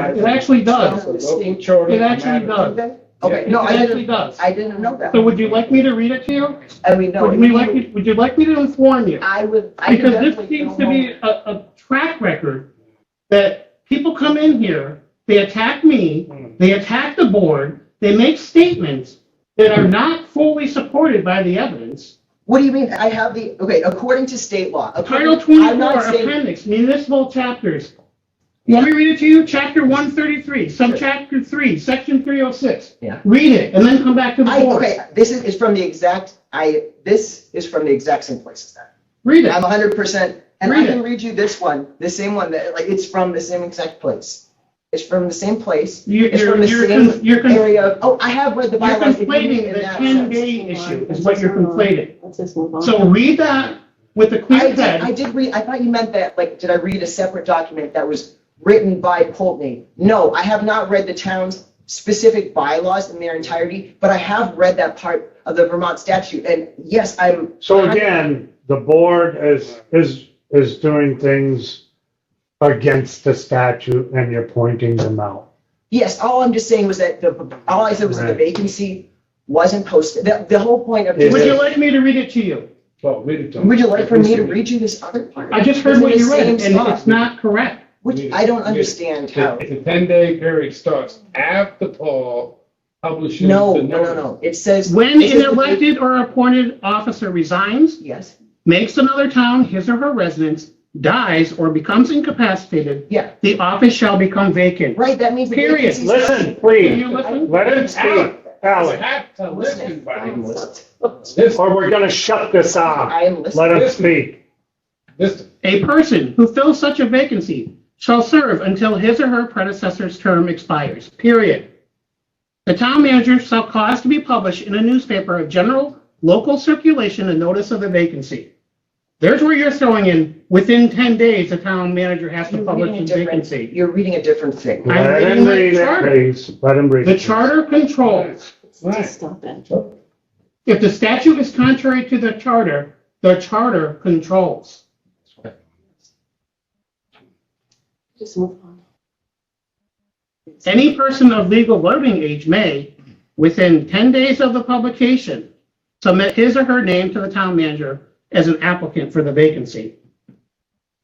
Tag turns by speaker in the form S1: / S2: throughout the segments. S1: It actually does.
S2: Distinct charter.
S1: It actually does.
S3: Okay, no,
S1: It
S3: I
S1: actually
S3: didn't,
S1: does.
S3: I didn't know that.
S1: So would you like me to read it to you?
S3: I mean, no.
S1: Would
S3: if
S1: you
S3: you-
S1: like, me- would you like me to inform you?
S3: I would, I could
S1: Because this
S3: definitely.
S1: seems
S3: go
S1: to be
S3: home.
S1: a, a track record that people come in here, they attack me, they attack the board, they make statements that are not fully supported by the evidence.
S3: What do you mean? I have the, okay, according to state law.
S1: Title
S3: according- I'm
S1: twenty-four
S3: not saying-
S1: appendix, municipal chapters. Let me read it to you, chapter one thirty-three, subchapter three, section three oh six.
S3: Yeah.
S1: Read it and then come back to the
S3: I,
S1: board.
S3: okay, this is, is from the exact, I, this is from the exact same place as that.
S1: Read
S3: I'm
S1: it.
S3: hundred percent, and I
S1: Read
S3: can
S1: it.
S3: read you this one, the same one, that, like, it's from the same exact place. It's from the same place,
S1: You-
S3: it's
S1: You're,
S3: from the
S1: you're, con-
S3: same
S1: you're con- you're
S3: area, of- oh, I have read the bylaws. if you mean
S1: conflating
S3: in
S1: the
S3: that
S1: ten
S3: sense.
S1: day issue is
S4: Let's
S1: what
S4: just
S1: you're
S4: move on.
S1: conflating.
S4: Let's just move on.
S1: So read that with a
S3: I
S1: clear
S3: did, I
S1: head.
S3: did read, I thought you meant that, like, did I read a separate document that was written by Pulteney? No, I have not read the town's specific bylaws in their entirety, but I have read that part of the Vermont statute, and yes, I'm.
S5: So again, the board is, is, is doing things against the statute and you're pointing them out.
S3: Yes, all I'm just saying was that the, all I said was that the
S5: Right.
S3: vacancy wasn't posted. The, the whole point of,
S5: It
S1: Would
S3: would
S1: you
S5: is.
S1: like me to read it to you?
S2: Well, read it to him.
S3: you like for me to read you this other part?
S1: I just heard
S3: It's in
S1: what
S3: the
S1: you read and
S3: same spot,
S1: it's not correct.
S3: Which I don't understand how.
S2: The ten-day period starts after Paul publishes.
S3: No,
S2: the
S3: no, no,
S2: notice.
S3: no. It says.
S1: When
S3: it says-
S1: an elected or appointed officer resigns,
S3: Yes,
S1: makes another town his or her residence, dies or becomes incapacitated,
S3: yeah,
S1: the office shall become vacant.
S3: right, that means. the
S1: Period.
S3: vacancy's not-
S5: Listen,
S1: Can you
S5: please,
S1: listen?
S5: let him speak,
S2: You
S5: Alex,
S2: have to listen by him. This,
S4: Listen.
S5: or we're gonna shut this off.
S3: I am
S5: Let
S3: listening.
S5: him speak.
S2: this,
S1: A person who fills such a vacancy shall serve until his or her predecessor's term expires, period. The town manager shall cause to be published in a newspaper of general local circulation a notice of the vacancy. There's where you're throwing in, within 10 days, the town manager has to
S3: You're
S1: publish
S3: reading a
S1: a
S3: different,
S1: vacancy.
S3: you're reading a different thing.
S1: I'm
S5: Let
S1: reading
S5: him
S1: the
S5: read it,
S1: charter.
S5: please, let him read.
S1: The
S5: it.
S1: charter controls.
S2: Right.
S4: Just Stop it.
S1: If the statute is contrary to the charter, the charter controls.
S4: Just move on.
S1: Any person of legal voting age may, within 10 days of the publication, submit his or her name to the town manager as an applicant for the vacancy.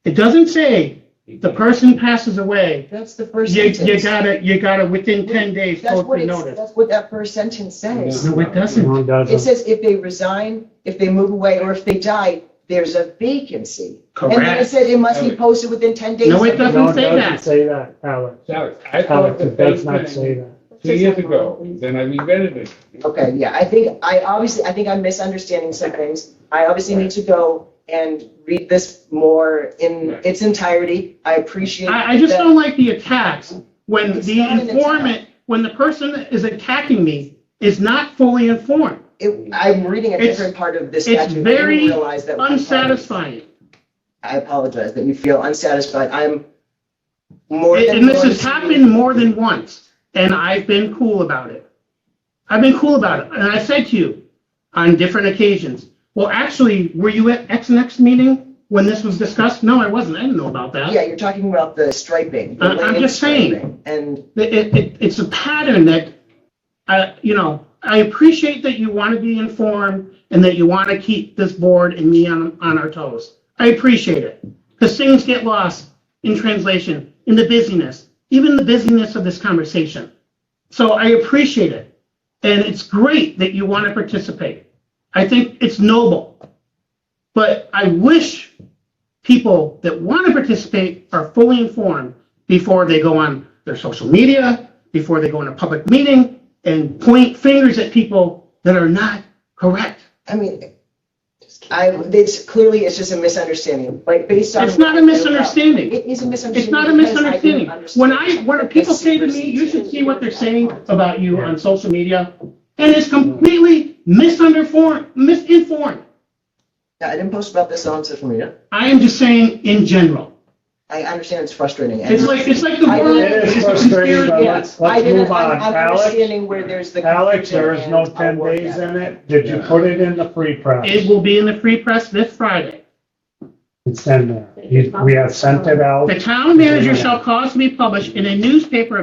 S1: It doesn't say the person passes away,
S3: That's the first
S1: you, you
S3: sentence.
S1: gotta, you gotta, within 10 days,
S3: That's
S1: post
S3: what
S1: the
S3: it's,
S1: notice. Mm-hmm.
S3: that's what that first sentence says.
S1: No, it doesn't.
S5: No, it
S3: It
S5: doesn't.
S3: says if they resign, if they move away, or if they die, there's a vacancy. And then it
S1: Correct.
S3: said it must be posted within 10 days.
S1: No, it doesn't
S5: No, it
S1: say
S5: doesn't
S1: that.
S5: say that, Alex.
S2: Alex, I thought
S5: Alex,
S2: the
S5: it does
S2: same
S5: not say
S2: thing
S5: that.
S4: Let's
S2: two
S4: just
S2: years
S4: move
S2: ago,
S4: on, please.
S2: then I regretted it.
S3: Okay, yeah, I think, I obviously, I think I'm misunderstanding some things. I obviously need to go and read this more in its entirety. I appreciate.
S1: I, I just
S3: that-
S1: don't like the attacks when
S3: It's
S1: the
S3: not an attack.
S1: informant, when the person that is attacking me is not fully informed.
S3: It- I'm reading a
S1: It's-
S3: different part of this
S1: it's
S3: statute. and I didn't
S1: very
S3: realize that was-
S1: Unsatisfying.
S3: I apologize that you feel unsatisfied. I'm more than.
S1: And this
S3: willing
S1: has
S3: to-
S1: happened more than once, and I've been cool about it. I've been cool about it, and I said to you on different occasions, well, actually, were you at X and X meeting when this was discussed? No, I wasn't, I didn't know about that.
S3: Yeah, you're talking about the striping. the
S1: I- Uh, I'm
S3: lane
S1: just saying.
S3: striping, And
S1: It- it- it- it's a pattern that, uh, you know, I appreciate that you want to be informed and that you want to keep this board and me on, on our toes. I appreciate it, because things get lost in translation, in the busyness, even the busyness of this conversation. So I appreciate it, and it's great that you want to participate. I think it's noble. But I wish people that want to participate are fully informed before they go on their social media, before they go in a public meeting and point fingers at people that are not correct.
S3: I mean,
S4: Just keep
S3: I,
S4: going.
S3: it's clearly, it's just a misunderstanding, like based on.
S1: It's not a misunderstanding.
S3: It is a misunderstanding.
S1: It's not a
S3: because I
S1: misunderstanding.
S3: didn't
S1: When I,
S3: understand
S1: when
S3: that
S1: people
S3: this
S1: say to me,
S3: supersedes
S1: you should
S3: it."
S1: see what they're saying about you on social media, and it's completely misunderformed, misinformed.
S3: Yeah, I didn't post about this on social media.
S1: I am just saying in general.
S3: I understand it's frustrating. and-
S1: It's like, it's like the
S3: I-
S1: world
S3: It is
S1: is a
S5: frustrating,
S1: conspiracy.
S5: but-
S3: Yeah,
S5: Let's- let's
S3: I didn't-
S5: move on.
S3: I'm- I'm
S5: Alex?
S3: understanding where there's the.
S5: Alex, there is no
S3: confusion, and
S5: ten
S3: I'll work
S5: days
S3: at
S5: in it. Did you put it in the free press?
S1: It will be in the free press this Friday.
S5: It's in there. You- We have sent it out.
S1: The town manager shall cause to be published in a newspaper